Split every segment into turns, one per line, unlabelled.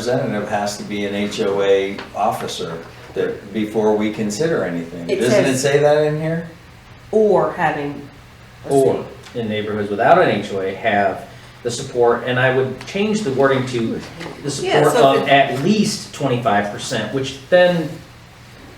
representative has to be an HOA officer that, before we consider anything.
It
Doesn't it
says-
say that in here?
or having a
or
seat.
in neighborhoods without an HOA have the support, and I would change the wording to
Yeah,
the support
so if
of
it-
at least twenty-five percent, which then,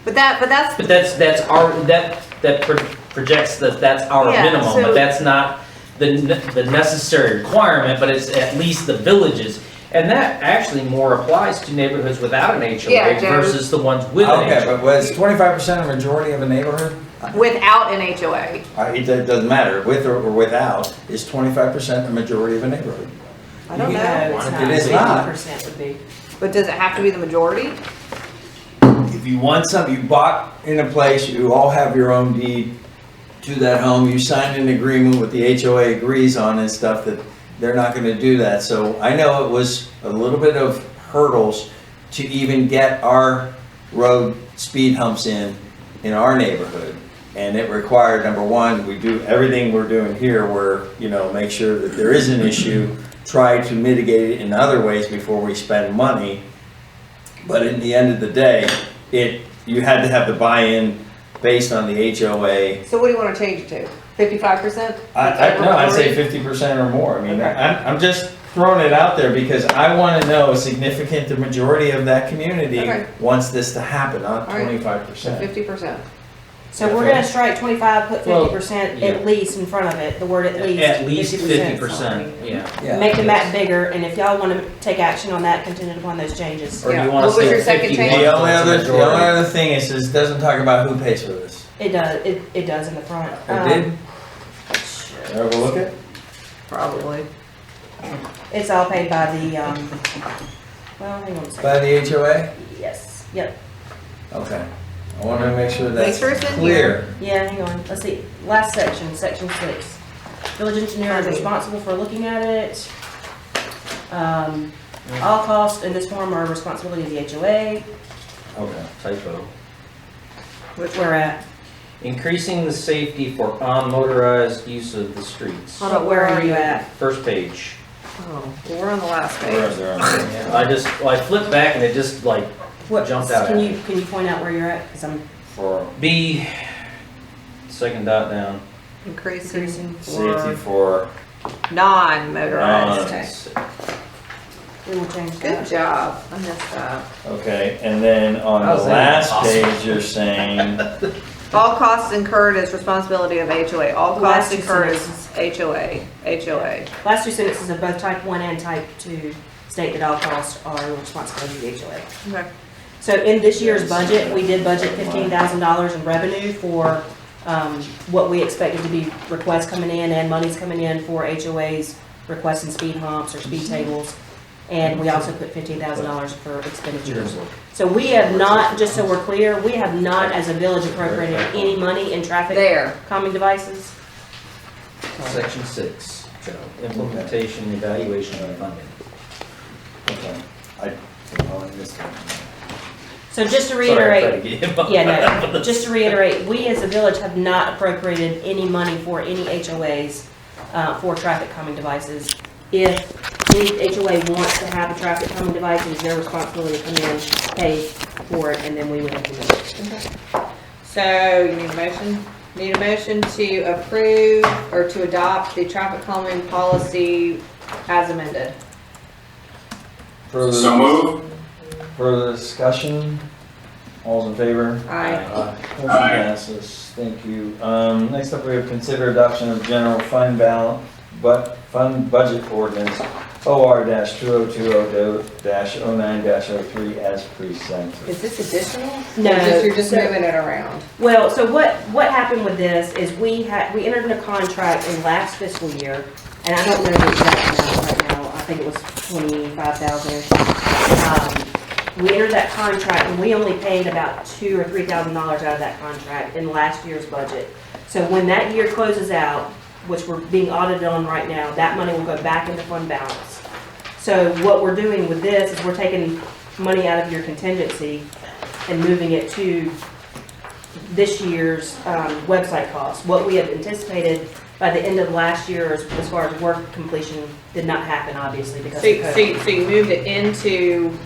But that, but that's,
but that's, that's our, that, that pro- projects that that's our
Yeah,
minimum,
so-
but that's not the, ne- the necessary requirement, but it's at least the villages. And that actually more applies to neighborhoods without an HOA
Yeah, Jared.
versus the ones with an
Okay,
HOA.
but was twenty-five percent a majority of a neighborhood?
without an HOA.
I- It do- doesn't matter, with or or without, is twenty-five percent the majority of a neighborhood?
I don't
No,
know.
it's
It
not.
is not.
percent would be.
But does it have to be the majority?
If you want something, you bought in a place, you all have your own deed to that home, you signed an agreement with the HOA agrees on and stuff that they're not gonna do that, so I know it was a little bit of hurdles to even get our road speed humps in, in our neighborhood. And it required, number one, we do everything we're doing here, where, you know, make sure that there is an issue, try to mitigate it in other ways before we spend money. But in the end of the day, it, you had to have the buy-in based on the HOA.
So what do you want to change it to? Fifty-five percent?
I, I, no, I'd say fifty percent or more, I mean,
Okay.
I'm, I'm just throwing it out there because I wanna know a significant, the majority of that community
Okay.
wants this to happen, not
All right.
twenty-five percent.
Fifty percent.
So we're gonna strike twenty-five, put
Well,
fifty percent
yeah.
at least in front of it, the word at least.
At least fifty
50%,
percent, yeah.
Yeah.
Make the map bigger, and if y'all wanna take action on that contingent upon those changes,
Or do
Yeah.
you wanna
What was
say
your second change?
fifty-one
The only
is the
other, the
majority?
only other thing is, is it doesn't talk about who pays for this.
it does, it, it does in the front.
It
Um,
did, overlook it?
Probably.
It's all paid by the, um, well, hang on a second,
By the HOA?
yes, yep,
Okay, I wanna make sure
Make
that's
sure it's in here.
clear.
yeah, hang on, let's see, last section, section six. Village engineer is responsible for looking at it. Um, all costs in this form are responsibility of the HOA,
Okay.
Typo.
which we're at.
Increasing the safety for unmotorized use of the streets.
Hold on, where are you at?
First page.
Oh, well, we're on the last
Where
page.
is there?
I just, well, I flipped back and it just like
What,
Jumped out
can
at
you, can you point out where you're at? Cause I'm
For
B, second dot down.
Increasing
increasing.
safety for
for
uh,
non-motorized.
Nice.
We will change
Good
that.
job. I messed up.
Okay, and then on
How's
the
that
last
possible?
page, you're saying,
All costs incurred is responsibility of HOA. All
Last
costs
two
incurred is HOA, HOA.
Last two sentences of both type one and type two state that all costs are the responsibility of the HOA.
Okay.
So in this year's budget, we did budget fifteen thousand dollars in revenue for, um, what we expected to be requests coming in and monies coming in for HOAs requesting speed humps or speed tables. And we also put fifteen thousand dollars for expenditures. So we have not, just so we're clear, we have not as a village appropriated any money in traffic
There.
calming devices.
Section six, Joe. implementation, evaluation, and funding.
okay, I, oh, I missed it.
So just to
Sorry, I
reiterate,
tried to get him.
Yeah, no, just to reiterate, we as a village have not appropriated any money for any HOAs uh, for traffic calming devices. If any HOA wants to have a traffic calming device, it is their responsibility to come in, pay for it, and then we would implement it.
So you need a motion? Need a motion to approve or to adopt the traffic calming policy as amended?
Further-
So move.
Further discussion, all's in favor?
Aye.
Motion
Aye.
passes, thank you. Um, next up, we have consider adoption of general fund balance, but fund budget ordinance, OR two oh two oh dash oh nine dash oh three as presented.
Is this additional?
No.
Or just- You're just
So-
moving it around.
Well, so what, what happened with this is we had, we entered into a contract in last fiscal year, and I don't know the exact amount right now, I think it was twenty-five thousand. Um, We entered that contract and we only paid about two or three thousand dollars out of that contract in last year's budget. So when that year closes out, which we're being audited on right now, that money will go back into fund balance. So what we're doing with this is we're taking money out of your contingency and moving it to this year's um, website costs. What we had anticipated by the end of last year, as, as far as work completion, did not happen, obviously, because
So,
of COVID.
so, so you moved it into